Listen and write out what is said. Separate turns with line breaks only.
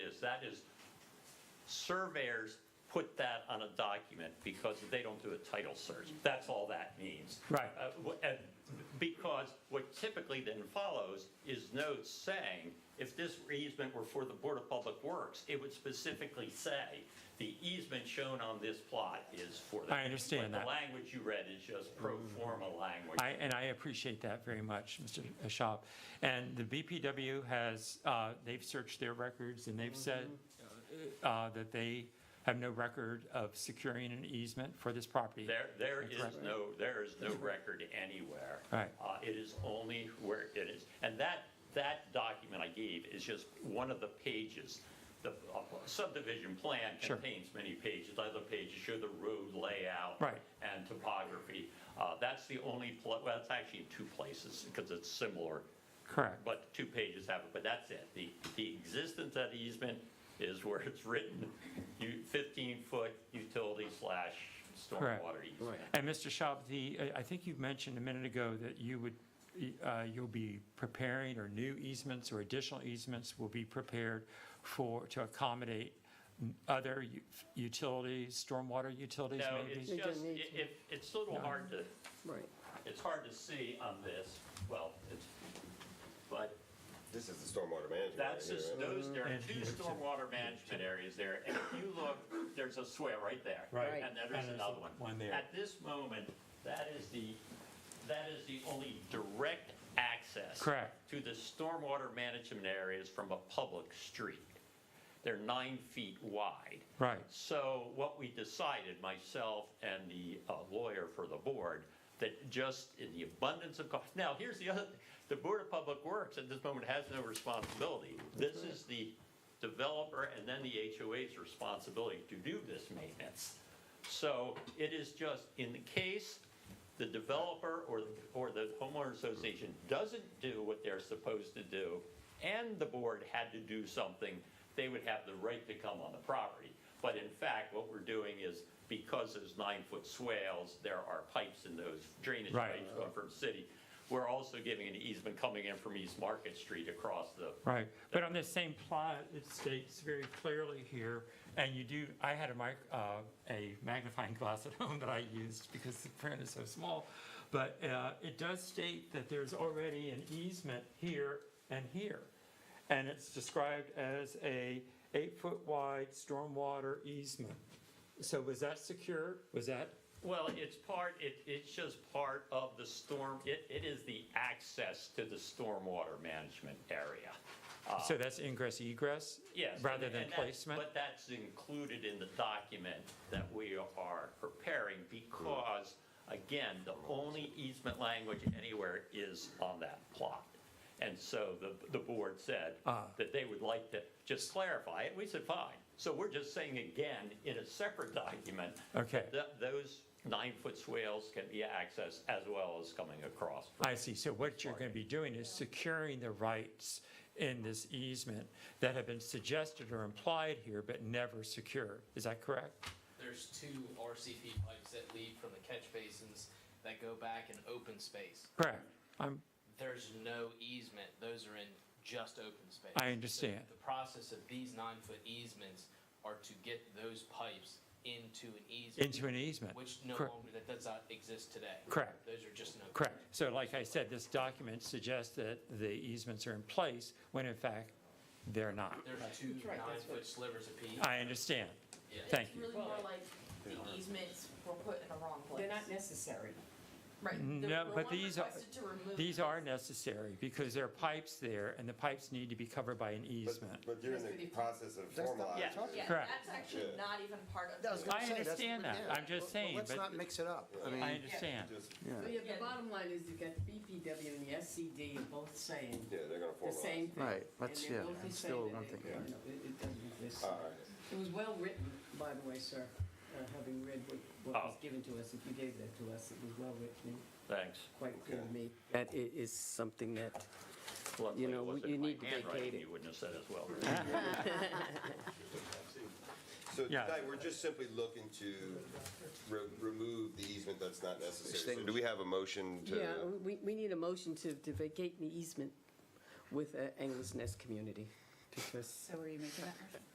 that is, surveyors put that on a document because they don't do a title search. That's all that means.
Right.
Uh, wh- and Because what typically then follows is notes saying, if this easement were for the Board of Public Works, it would specifically say, the easement shown on this plot is for that.
I understand
But
that.
The language you read is just pro forma language.
I, and I appreciate that very much, Mr. Schaub. And the BPW has, uh, they've searched their records and they've said
Mm-hmm.
uh, that they have no record of securing an easement for this property.
There, there is
Correct.
no, there is no record anywhere.
Right.
Uh, It is only where it is, and that, that document I gave is just one of the pages. The uh, subdivision plan
Sure.
contains many pages, other pages show the road layout.
Right.
And topography. Uh, That's the only, pla- well, it's actually in two places, because it's similar,
Correct.
but two pages have it, but that's it. The, the existence of the easement is where it's written, you, 15-foot utility slash
Correct.
stormwater easement.
And Mr. Schaub, the, I- I think you mentioned a minute ago that you would, uh, you'll be preparing or new easements or additional easements will be prepared for, to accommodate other u- utilities, stormwater utilities
No,
maybe?
it's
They don't
just,
need
it, it- it's a little hard to,
Right.
it's hard to see on this, well, it's, but
This is the stormwater management.
that's
right here,
just,
right?
those, there are
And
two
here's the-
stormwater management areas there, and if you look, there's a swale right there.
Right.
And there is another one.
one there.
At this moment, that is the, that is the only direct access.
Correct.
To the stormwater management areas from a public street. They're nine feet wide.
Right.
So what we decided, myself and the uh, lawyer for the board, that just in the abundance of, cau- now, here's the other, the Board of Public Works at this moment has no responsibility. This is the developer and then the HOA's responsibility to do this maintenance. So it is just, in the case the developer or, or the homeowner association doesn't do what they're supposed to do, and the board had to do something, they would have the right to come on the property. But in fact, what we're doing is, because there's nine-foot swales, there are pipes in those drainage
Right.
pipes going from city. We're also giving an easement coming in from East Market Street across the
Right, but on this same plot, it states very clearly here, and you do, I had a mic, uh, a magnifying glass at home that I used because the print is so small, but, uh, it does state that there's already an easement here and here. And it's described as a eight-foot wide stormwater easement. So was that secure? Was that,
Well, it's part, it, it's just part of the storm, it, it is the access to the stormwater management area. Uh,
so that's ingress egress?
Yes.
Rather
and-
than
and that's-
placement?
But that's included in the document that we are preparing because, again, the only easement language anywhere is on that plot. And so the, the board said
Ah.
that they would like to just clarify it. We said, fine. So we're just saying again, in a separate document,
Okay.
th- those nine-foot swales can be accessed as well as coming across.
I see. So what you're going to be doing is securing the rights in this easement that have been suggested or implied here, but never secured. Is that correct?
There's two RCP pipes that lead from the catch basins that go back in open space.
Correct. I'm,
There's no easement. Those are in just open space.
I understand.
The, the process of these nine-foot easements are to get those pipes into an easement,
into an easement.
which no
Correct.
longer, that does not exist today.
Correct.
Those are just no.
Correct. So like I said, this document suggests that the easements are in place when in fact they're not.
There's two
right, that's
nine-foot slivers apiece.
I understand.
Yeah.
Thank you.
It's really more like the easements were put in the wrong place.
They're not necessary.
Right. the-
No,
the
Mm, but
one
these are-
requested to remove
These
this-
are necessary because there are pipes there and the pipes need to be covered by an easement.
But- But you're in the process of
That's not-
formalizing.
Yeah.
it.
Yeah,
Correct.
that's actually
Yeah.
not even part of.
I was
the-
gonna
I
say, that's-
understand that.
yeah.
I'm just
Well,
saying,
Let's
but-
not mix it up. I
I
mean,
understand.
Just-
So
yeah,
yeah, the bottom line is you've got the BPW and the SCD are both saying
Yeah, they're gonna
the same
formalize.
thing.
right, let's,
And
yeah,
they're both
I'm
saying
still
that
one
it-
thing.
you know, It it doesn't exist.
All right.
It was well written, by the way, sir, uh, having read what, what
Oh.
was given to us, if you gave that to us, it was well written, and
Thanks.
quite clear to me.
That i- is something that,
Luckily,
You
it
know,
wasn't
you
my
need to vacate
handwriting,
it.
You wouldn't have said as well.
So
Yeah.
tonight, we're just simply looking to re- remove the easement that's not necessary. So
Extinguish.
do we have a motion to?
yeah, we, we need a motion to, to vacate the easement with uh, Anglers Nest Community, because
So are you making that motion?